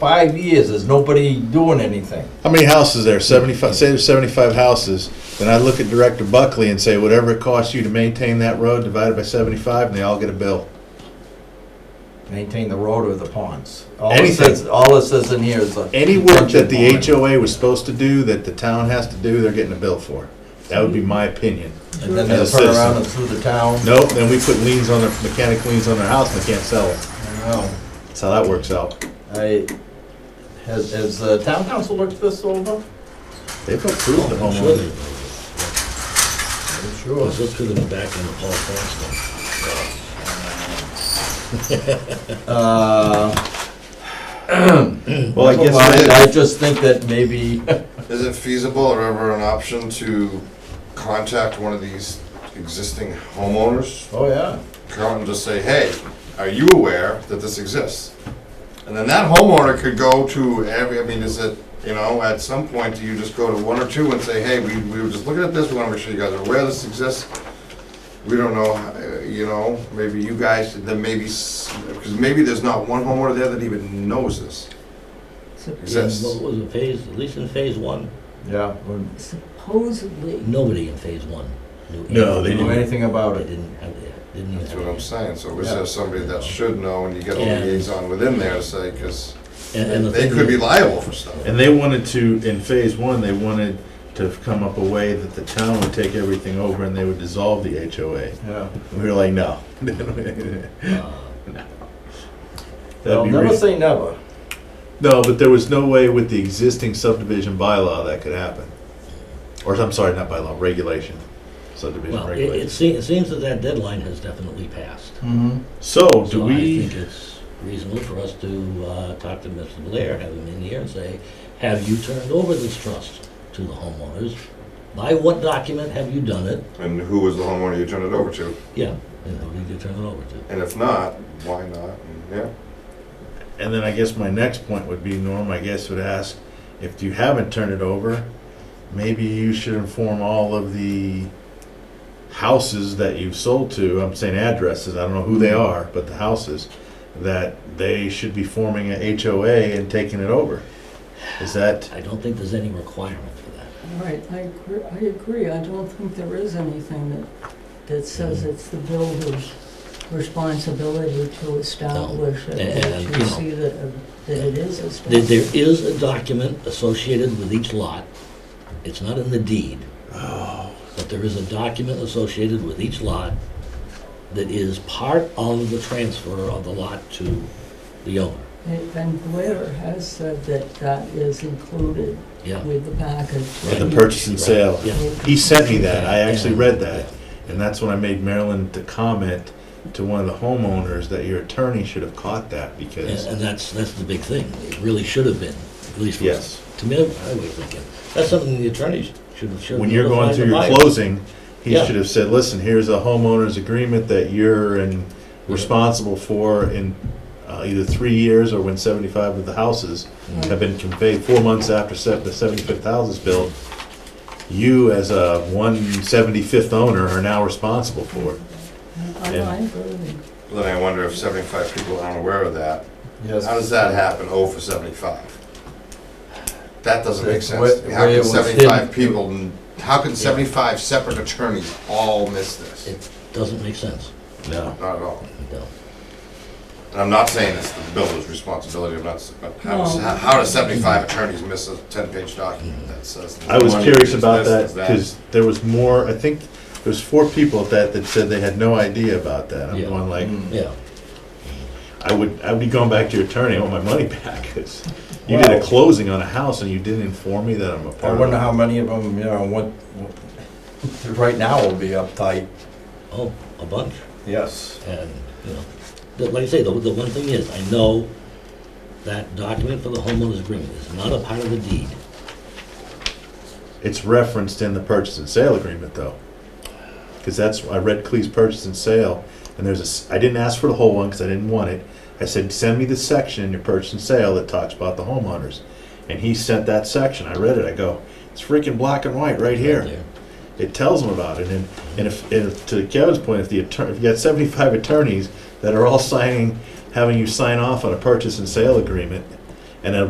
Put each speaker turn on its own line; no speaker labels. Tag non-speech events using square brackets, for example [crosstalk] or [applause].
five years, there's nobody doing anything.
How many houses there? Seventy-five, say there's seventy-five houses, then I look at Director Buckley and say, whatever it costs you to maintain that road divided by seventy-five, and they all get a bill.
Maintain the road or the ponds. All it
Anything.
says, all it says in here is a.
Any work that the
detention pond.
HOA was supposed to do, that the town has to do, they're getting a bill for. That would be my opinion.
And then
as a
they'll turn around
citizen.
and sue the town.
Nope, then we put liens on their, mechanic liens on their house and they can't sell it.
No.
That's how that works out.
I, has, has the town council looked this over?
They've approved the
I'm sure they
homeowner.
do.
I'm sure.
Well, Let's look through the back end of Paul Francis.
[laughs] Uh,
Well, I
well, I, I
guess,
just think that maybe, [laughs]
Is it feasible or ever an option to contact one of these existing homeowners?
oh yeah,
Come and just say, hey, are you aware that this exists? And then that homeowner could go to every, I mean, is it, you know, at some point, do you just go to one or two and say, hey, we, we were just looking at this, we wanna make sure you guys are aware this exists? We don't know, uh, you know, maybe you guys, then maybe, because maybe there's not one homeowner there that even knows this. Exists.
What was it, phase, at least in phase one,
yeah, wouldn't
Supposedly.
nobody in phase one knew.
No, they
do anything
anything.
about
They
it.
didn't have, that. didn't even
That's what I'm
have.
saying, so is
Yeah.
there somebody that should know, and you get a
Yeah.
liaison within there to say, because
that. And- and the
they
thing
could be
is-
liable for stuff.
and they wanted to, in phase one, they wanted to come up a way that the town would take everything over and they would dissolve the HOA.
Yeah,
We were like,
[laughs]
no. [laughs]
uh,
they'll
That'd be
never
re-
say never.
No, but there was no way with the existing subdivision bylaw that could happen. Or, I'm sorry, not bylaw, regulation, subdivision
Well, it, it
regulation.
seems, it seems that that deadline has definitely passed.
Mm-hmm.
So, do
So I
we,
think it's reasonable for us to, uh, talk to Mr. Blair, have him in here and say, have you turned over this trust to the homeowners? By what document have you done it?
And who was the homeowner you turned it over to?
Yeah, and who did you turn it over to?
And if not, why not? And, Yeah,
and then I guess my next point would be, Norm, I guess would ask, if you haven't turned it over, maybe you should inform all of the houses that you've sold to, I'm saying addresses, I don't know who they are, but the houses, that they should be forming a HOA and taking it over. Is that,
I don't think there's any requirement for that.
All right, I agree, I agree. I don't think there is anything that, that says
Mm.
it's the builder's responsibility to establish it,
And- and,
to
you know,
see that, uh, that it is
There,
established.
there is a document associated with each lot. It's not in the deed.
Oh.
But there is a document associated with each lot that is part of the transfer of the lot to the owner.
And and Blair has said that that is included
Yeah.
with the package.
and the purchase and sale?
Yeah.
He sent me that. I actually read that. And that's when I made Marilyn the comment to one of the homeowners that your attorney should have caught that
And,
because,
and that's, that's the big thing. It really should have been, at least. was-
yes,
To me, I was thinking, that's something the attorneys should have, should have.
when you're going
notified
through
the
your
buyer.
closing, he
Yeah.
should have said, listen, here's a homeowner's agreement that you're in, responsible for in uh, either three years or when seventy-five of the houses
Mm-hmm.
have been conveyed, four months after se- the seventy-fifth house is built. You as a one seventy-fifth owner are now responsible for it.
I, I agree.
Well, then I wonder if seventy-five people aren't aware of that.
Yes.
How does that happen, oh, for seventy-five? That doesn't make
That's what-
sense. to me. How
where it
can
was hidden.
seventy-five people, n- how can seventy-five separate attorneys all miss this?
It doesn't make sense.
No.
Not at all.
No.
And I'm not saying it's the builder's responsibility, I'm not, s- but how does,
No.
how- how does seventy-five attorneys miss a ten-page document that says?
I was
money
curious
is
about
this,
that
is
because there was more, I think, there was four people at that that said they had no idea about that. I'm
Yeah.
going like,
Mm.
Yeah.
I would, I'd be going back to your attorney, I want my money [laughs] back. 'cause You did a
Well-
closing on a house and you didn't inform me that I'm a
I
part of
wonder
it.
how many of them, you know, what, what- [laughs] right now will be uptight.
Oh, a bunch.
Yes.
And, you know, the- like I say, the, the one thing is, I know that document for the homeowner's agreement is not a part of the deed.
It's referenced in the purchase and sale agreement though. Because that's, I read Cleese purchase and sale and there's a, s- I didn't ask for the whole one because I didn't want it. I said, send me the section in your purchase and sale that talks about the homeowners. And he sent that section, I read it, I go, it's freaking black and white right here.
There.
it tells them about it. And, and if, and if- to Kevin's point, if the attorney, if you got [laughs] seventy-five attorneys that are all signing, having you sign off on a purchase and sale agreement,